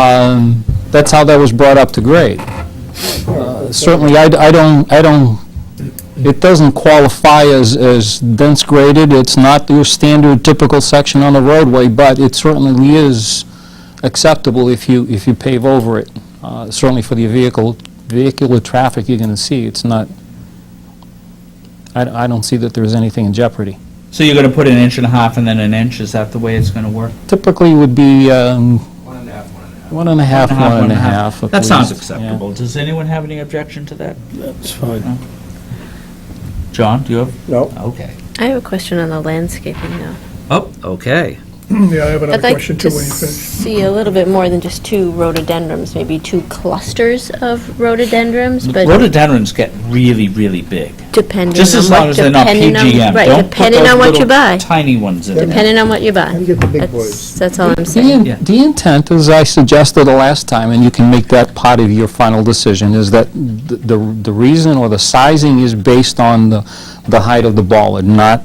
Um, That's how that was brought up to grade. Uh, Certainly, I d- I don't, I don't, it doesn't qualify as, as dense graded, it's not your standard typical section on the roadway, but it certainly is acceptable if you, if you pave over it. Uh, Certainly for the vehicle, vehicular traffic you're going to see, it's not, I, d- I don't see that there's anything in jeopardy. So you're gonna put an inch and a half and then an inch, is that the way it's gonna work? Typically would be um, one and a half, one and a half. at That sounds least, yeah. acceptable. Does anyone have any objection to that? That's fine. John, do you have? No. Okay. I have a question on the landscaping now. Oh, okay. Yeah, I have another I'd like question too to when you finish. see a little bit more than just two rhododendrons, maybe two clusters of rhododendrons, but Rhododendrons get really, really big. depending Just on as long what, as they're not depending PGM. on, right, Don't put depending those on what you little buy, Tiny ones in there. depending on what you buy. How do you get the big That's, boys? that's all I'm The, saying. Yeah. in- the intent, as I suggested the last time, and you can make that part of your final decision, is that the, the the reason or the sizing is based on the, the height of the bollard, not,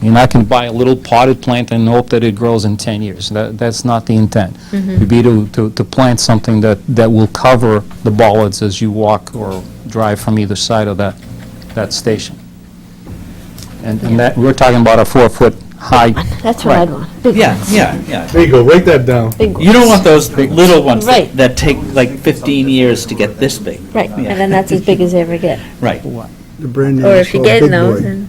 you're not going to buy a little potted plant and hope that it grows in 10 years. That, that's not the intent. It'd be to, to, to plant something that, that will cover the bollards as you walk or drive from either side of that, that station. And, and that, we're talking about a four-foot high. That's what I'd want, big Yeah, ones, yeah, yeah. There you go, write that down. big ones. You don't want those little ones that Right. that take like 15 years to get this big. Right, and then that's as big as they ever get. Right. The brand new Or is if you're called getting Big those, Boy. then,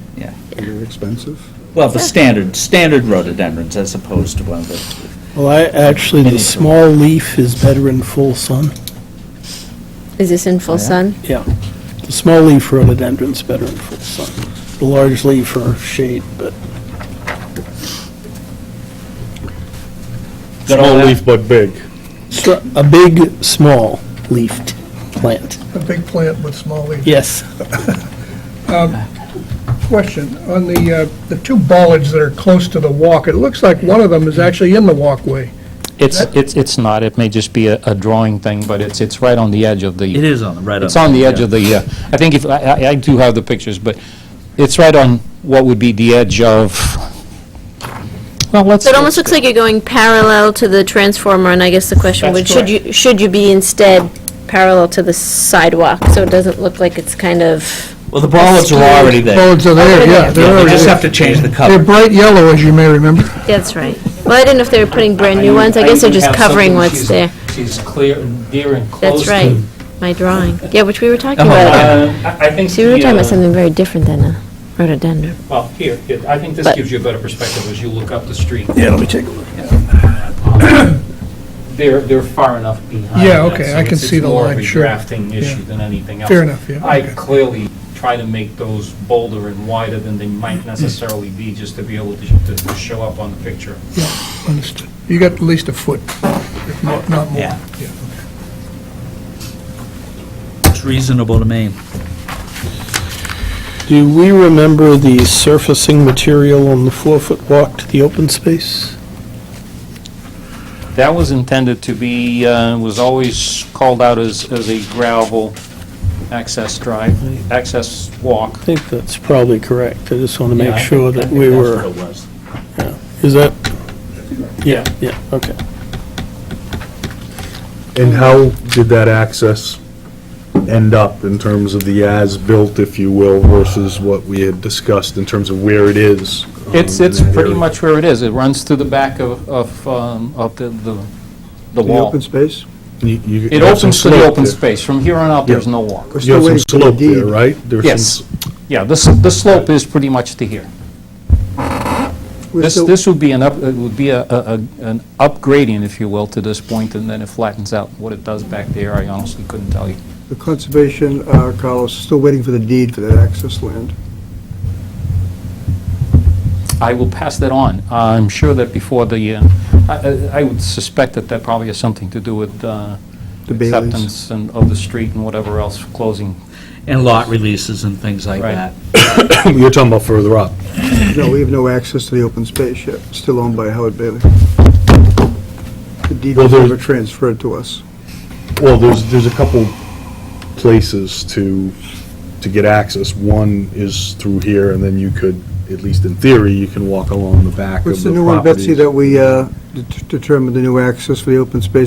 They're expensive. Well, the standard, standard rhododendrons as opposed to one of the Well, I, actually, the Anything. small leaf is better in full sun. is this in full Yeah. sun? The small leaf rhododendron's better in full sun. The large leaf are shade, but Got all Small that? leaf but big. str- a big, small leafed plant. A big plant with small leaves. Yes. Question, on the, uh, the two bollards that are close to the walk, it looks like one of them is actually in the walkway. It's, it's, it's not, it may just be a, a drawing thing, but it's, it's right on the edge of the, is on the, right it's on the edge of the, uh, I think if, I, I- I do have the pictures, but it's right on what would be the edge of, well, let's. So it almost looks like you're going parallel to the transformer, and I guess the question That's would, should you, should you be instead parallel to the sidewalk? So it doesn't look like it's kind of, Well, the bollards are already there. Bollards are there, yeah. they're Yeah, we already just there. have to change the They're color. bright yellow, as you may remember. that's right. Well, I didn't know if they were putting brand-new ones, I guess they're just covering what's there. She's clear, near and That's right, my drawing. Yeah, which we were talking Oh, about. Uh, I think See, we were talking about something very different than a rhododendron. well, here, I think this But- gives you a better perspective as you look up the street. Yeah, let me take a look. They're, they're far enough behind. Yeah, that, okay, so I can it's- see the line, sure. It's more of a drafting issue than anything else. Fair enough, yeah, I okay. clearly try to make those bolder and wider than they Mm. might necessarily be, just to be able to, to show up on the picture. Understood. You got at least a foot, if not not more. Yeah. It's reasonable to me. Do we remember the surfacing material on the four-foot walk to the open space? That was intended to be, uh, was always called out as, as a gravel access drive, access walk. I think that's probably correct. I just want to Yeah, make I sure think- I that think we that's were, what it was. is that? Yeah, yeah, okay. And how did that access end up in terms of the as-built, if you will, versus what we had discussed in terms of where it is? um, It's, in it's that pretty area? much where it is. It runs through the back of, of, um, of the, the the The wall. open space? You- you- It you have some opens to the slope open there. space. From here on out, there's Yeah. no walk. You We're still have some waiting for the slope there, deed. right? There's some Yes. s- Yeah, this, the slope is pretty much to here. We're This, still- this would be an up, it would be a, a, a- an upgrading, if you will, to this point, and then it flattens out. What it does back there, I honestly couldn't tell you. The conservation, uh, Carlos, is still waiting for the deed for that access land. I will pass that on. I'm sure that before the, uh, I- I, I would suspect that that probably has something to do with uh, The Baileys. acceptance and, of the street and whatever else, closing. And lot releases and things like Right. that. You're talking about further up. No, we have no access to the open space yet, still owned by Howard Bailey. The deed Well, was there's- never transferred to us. Well, there's, there's a couple places to, to get access. One is through here, and then you could, at least in theory, you can walk along the back of the What's properties. the new one, Betsy, that we uh, det- determined the new access for the open space